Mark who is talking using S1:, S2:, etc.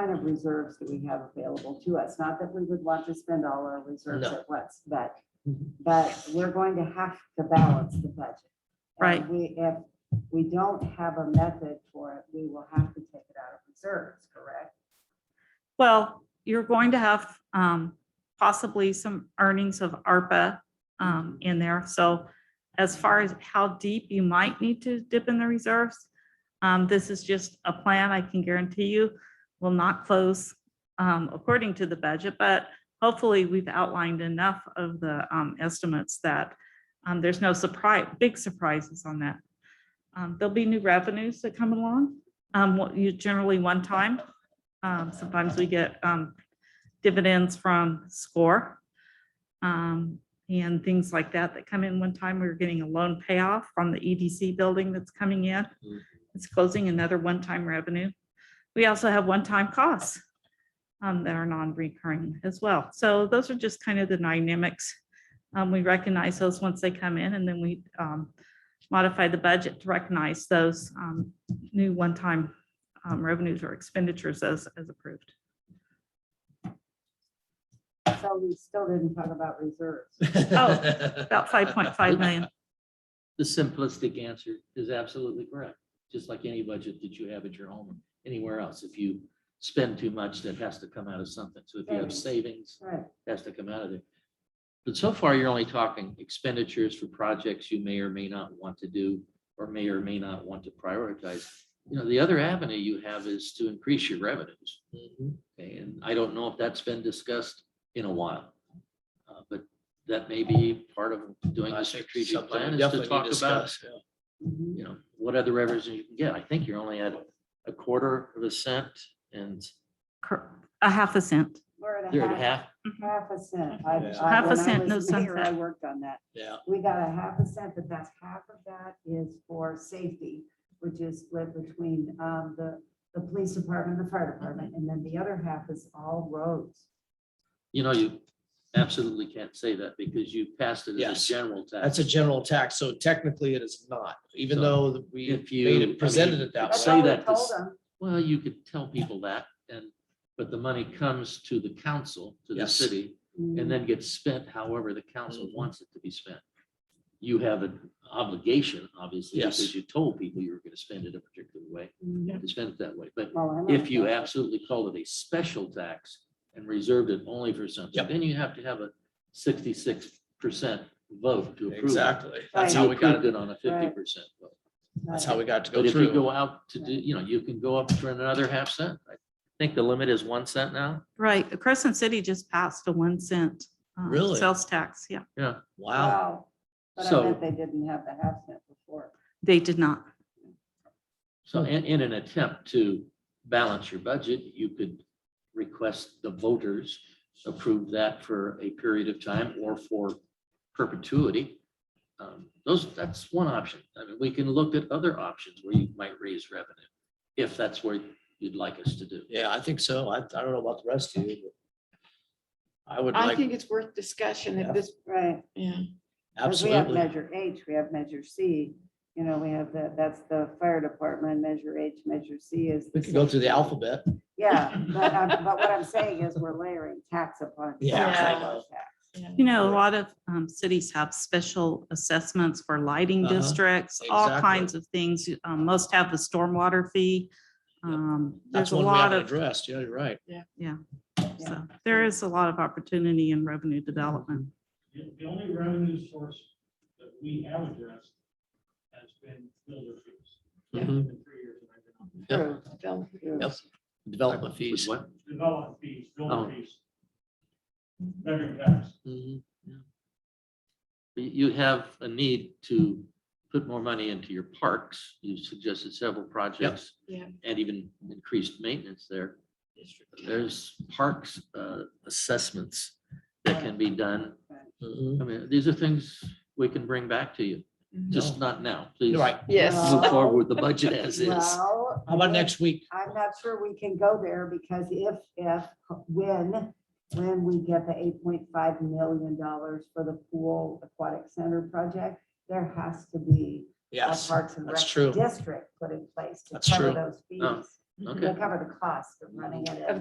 S1: kind of reserves that we have available to us. Not that we would want to spend all our reserves
S2: No.
S1: at once, but,
S2: Mhm.
S1: but we're going to have to balance the budget. And
S3: Right.
S1: We, if we don't have a method for it, we will have to take it out of reserves, correct?
S3: Well, you're going to have um, possibly some earnings of ARPA um, in there. So as far as how deep you might need to dip in the reserves, um, this is just a plan I can guarantee you will not close um, according to the budget, but hopefully we've outlined enough of the um, estimates that um, there's no surprise, big surprises on that. Um, There'll be new revenues that come along, um, what you generally one time. Um, sometimes we get, um, dividends from score. Um, and things like that that come in. One time we were getting a loan payoff from the EDC building that's coming in. It's closing another one-time revenue. We also have one-time costs, um, that are non-recurring as well. So those are just kind of the dynamics. Um, we recognize those once they come in and then we, um, modify the budget to recognize those, um, new one-time um, revenues or expenditures as, as approved.
S1: So we still didn't talk about reserves.
S3: About five point five million.
S2: The simplistic answer is absolutely correct, just like any budget that you have at your home, or anywhere else. If you spend too much, that has to come out of something. So if you have
S1: Savings.
S2: savings,
S1: Right.
S2: it has to come out of there. But so far, you're only talking expenditures for projects you may or may not want to do or may or may not want to prioritize. You know, the other avenue you have is to increase your revenues.
S4: Mm-hmm.
S2: And I don't know if that's been discussed in a while. Uh, But that may be part of doing
S4: I
S2: a
S4: think
S2: strategic
S4: something
S2: plan
S4: we
S2: is to
S4: definitely
S2: talk
S4: need
S2: about,
S4: discuss, yeah.
S1: Mhm.
S2: you know, what other revenues you can get. I think you're only at a quarter of a cent and
S3: Cor- A half a cent.
S1: We're at
S2: you're at half.
S1: Half a cent. I-
S4: Yeah.
S1: I-
S3: Half a
S1: when I
S3: cent,
S1: was
S3: no
S1: mayor, I
S3: sunset.
S1: worked on that.
S4: Yeah,
S1: We got a half a cent, but that's half of that is for safety, which is split between um, the, the police department, the fire department, and then the other half is all roads.
S2: You know, you absolutely can't say that because you passed it as
S4: Yes.
S2: a general tax.
S4: that's a general tax, so technically it is not, even
S2: So,
S4: though that we
S2: if you-
S4: made
S2: I mean,
S4: it, presented it that
S1: That's
S2: say
S1: all
S4: way.
S1: we
S2: that
S1: told
S2: this-
S1: them.
S2: Well, you could tell people that and, but the money comes to the council, to the
S4: Yes.
S2: city,
S1: Mhm.
S2: and then gets spent however the council
S4: Mhm.
S2: wants it to be spent. You have an obligation, obviously,
S4: Yes.
S2: because you told people you were going to spend it a particular way,
S1: Mhm.
S2: to spend it that way. But
S1: Well, I know
S2: if you
S1: that.
S2: absolutely called it a special tax and reserved it only for something,
S4: Yep.
S2: then you have to have a sixty-six percent vote to approve. it.
S4: Exactly,
S1: Right.
S4: that's how we got,
S2: Approved
S4: it.
S2: it on a fifty percent vote.
S4: that's how we got to
S2: But
S4: go
S2: if you
S4: through.
S2: go out to do, you know, you can go up for another half cent. I think the limit is one cent now.
S3: Right. Crescent City just passed a one cent. um,
S4: Really?
S3: Sales tax. Yeah,
S2: Yeah,
S4: Wow,
S1: But I
S2: So-
S1: bet they didn't have the half cent before.
S3: they did not.
S4: Hmm.
S2: so in, in an attempt to balance your budget, you could request the voters approve that for a period of time or for perpetuity. Um, Those, that's one option. I mean, we can look at other options where you might raise revenue, if that's where you'd like us to do.
S4: yeah, I think so, I, I don't know about the rest of you. but I would
S5: I
S4: like,
S5: think it's worth discussion
S4: Yeah.
S5: at this,
S1: Right.
S5: yeah.
S1: 'Cause We have
S4: absolutely,
S1: measure H, we have measure C, you know, we have the, that's the fire department, measure H, measure C is.
S4: we
S1: the
S4: could go through the
S1: safety.
S4: alphabet,
S1: Yeah, but, I'm- but what I'm saying is we're layering tax upon.
S4: Yeah,
S1: tax
S5: Yeah.
S1: upon tax.
S3: You know, a lot of um, cities have special assessments for lighting
S4: Uh-huh.
S3: districts, all
S4: Exactly.
S3: kinds of things. Um, Most have the stormwater fee. Um,
S4: that's
S3: There's a
S4: one we
S3: lot
S4: haven't
S3: of,
S4: addressed, yeah, you're right.
S3: so there is a lot of opportunity in revenue development.
S6: The the only revenue source that we have addressed has been builder fees.
S4: Yeah.
S6: It's been three years that I've been on.
S1: True,
S4: Yep.
S5: Bill.
S1: true.
S4: Yep. Development fees.
S2: What?
S6: Development fees,
S2: Oh.
S6: builder fees. Bedroom tax.
S4: Mhm.
S2: You you have a need to put more money into your parks. You suggested several projects.
S5: Yeah.
S2: And even increased maintenance there. There's parks uh, assessments that can be done.
S4: Mhm.
S2: I mean, these are things we can bring back to you,
S5: Mm-hmm.
S2: just not now, please.
S4: You're right,
S5: Yes.
S2: Move forward with the budget as is.
S1: Well,
S4: how about
S1: if-
S4: next week?
S1: I'm not sure we can go there because if, if, when, when we get the eight point five million dollars for the pool aquatic center project, there has to be a
S4: Yes,
S1: Parks and
S4: that's
S1: Rec
S4: true.
S1: district put in place to
S4: That's
S1: cover
S4: true. Oh,
S1: those
S2: No.
S1: fees.
S2: Okay.
S1: We'll cover the cost of running it.
S5: Of